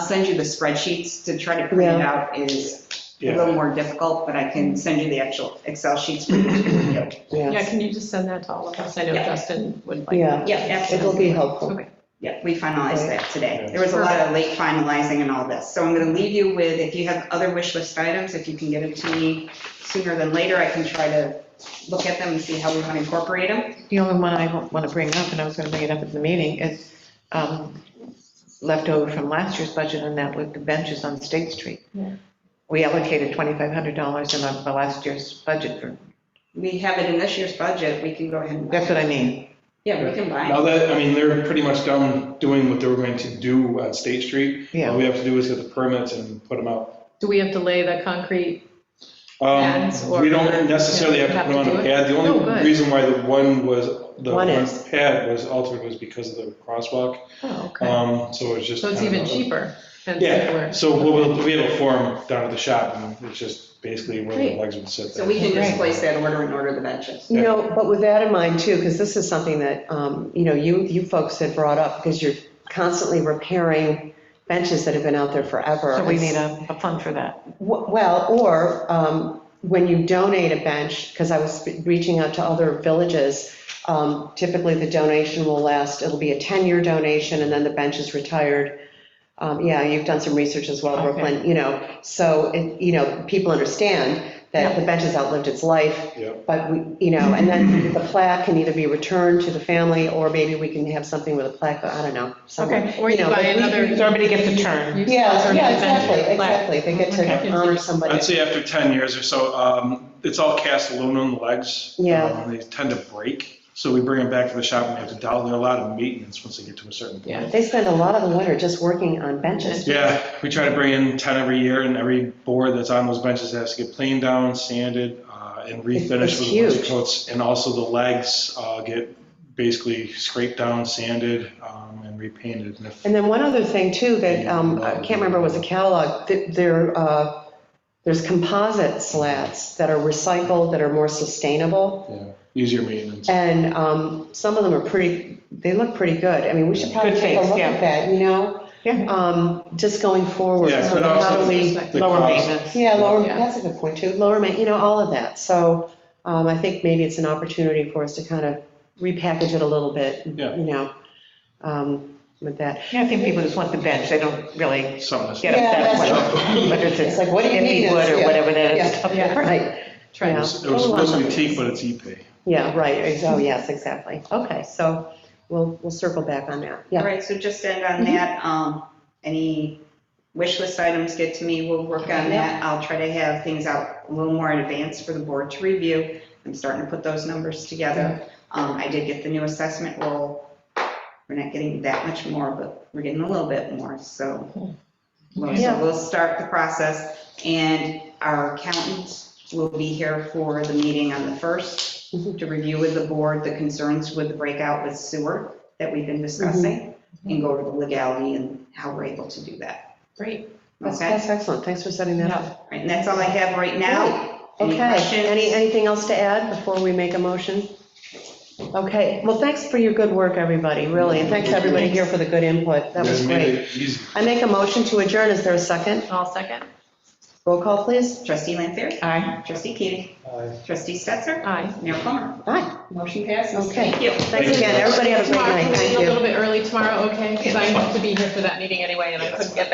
send you the spreadsheets to try to print it out is a Yeah, little more difficult, but I can send you the actual Excel sheets. for you to review. Yeah, can you just send that to all of us? I know Yeah. Justin would like. yeah, Yeah, it'll absolutely. be helpful. Okay. Yeah, we finalized that today. There was a lot of late finalizing and all this. So I'm going to leave you with, if you have other wish list items, if you can get them to me sooner than later, I can try to look at them and see how we want to incorporate them. The only one I want to bring up, and I was going to bring it up at the meeting, is um, leftover from last year's budget, and that was the benches on State Street. Yeah. We allocated $2,500 in our- the last year's budget for, We have it in this year's budget, we can go ahead and, that's what I mean. yeah, we can buy. now that, I mean, they're pretty much done doing what they were going to do on State Street. All Yeah, we have to do is get the permits and put them out. Do we have to lay the concrete? Um, Pads or- We don't necessarily have to put on Have a to do it? pad. The No, only good. reason why the one was, the One one is. pad was altered was because of the crosswalk. Oh, okay. Um, So it was just. So it's kind of even a- cheaper and Yeah, simpler. so we'll, we have a form down at the shop, and it's just basically where the Great. legs would sit. So we there. can just place that order and order the benches. You know, but with that in mind too, because this is something that, um, you know, you, you folks had brought up, because you're constantly repairing benches that have been out there forever. so we need a a fund for that. W- Well, or um, when you donate a bench, because I was reaching out to other villages, um, typically the donation will last, it'll be a 10-year donation, and then the bench is retired. Um, Yeah, you've done some research as well, Brooklyn, you know, so, it- you know, people understand that the bench has outlived its life, Yeah. but we, you know, and then the plaque can either be returned to the family, or maybe we can have something with a plaque, I don't know, somewhere. Okay, or you know, buy but we- another. Somebody gets a turn. You Yeah, sponsor yeah, an event exactly, with plaque. exactly, they get Okay. to honor somebody. I'd say after 10 years or so, um, it's all cast aluminum legs. Yeah. Um, They tend to break, so we bring them back to the shop and have to dial, they're a lot of maintenance once they get to a certain point. Yeah. They spend a lot of the winter just working on benches. Yeah, we try to bring in 10 every year, and every board that's on those benches has to get planed down, sanded, uh, and refinished it's with a bunch of huge. coats. And also the legs uh, get basically scraped down, sanded, um, and repainted. And if- And then one other thing too, that, um, I can't remember, was a catalog, that there, uh, there's composite slats that are recycled, that are more sustainable. yeah, Easier maintenance. And, um, some of them are pretty, they look pretty good. I mean, we should probably Good take a things, look yeah. at that, you know? Yeah. Um, just going forward. Yeah, So but how do also- we- The Lower cost- maintenance. Yeah, lower, Yeah. that's a good point too, lower, ma- you know, all of that. So, um, I think maybe it's an opportunity for us to kind of repackage it a little bit, you Yeah. know, um, with that. Yeah, I think people just want the bench, they don't really Something. get Yeah, upset that's whether- whether It's it's like, what do you mean? empty wood or Yeah. whatever that is. Yeah. Yeah. Right, It yeah, Oh, Try. was it was supposed to be teak, but it's E epay. yeah, right, oh, yes, exactly. Okay, so we'll, we'll circle back on that, All yeah. Mm-hmm. right, so just end on that. Um, Any wish list items get to me, we'll work on that. I'll try to have things out a little more in advance for the board to review. I'm starting to put those numbers together. Um, I did get the new assessment roll. We're not getting that much more, but we're getting a little bit more, so. Well, So Mm-hmm. Yeah. we'll start the process, and our accountant will be here for the meeting on the 1st to review with the board the concerns with the breakout with sewer that we've been discussing, Mm-hmm. and go over the legality and how we're able to do that. Great. That's, Okay? that's excellent, thanks for setting that up. All right, And that's all I have right now. Any Okay, any, questions? anything else to add before we make a motion? Okay, well, thanks for your good work, everybody, really, and thanks to everybody here for the good input, that You was guys made great. it easy. I make a motion to adjourn, is there a second? All second. Roll call, please. Trustee Lanfair? Aye. Trustee Keating? Trustee Stetser? Aye. Mayor Plummer? Aye, Motion passes. Okay. Thank you. thanks again, everybody have a great Tomorrow, night, can we thank leave you. A little bit early tomorrow, okay? Because I have to be here for that meeting anyway, and I couldn't get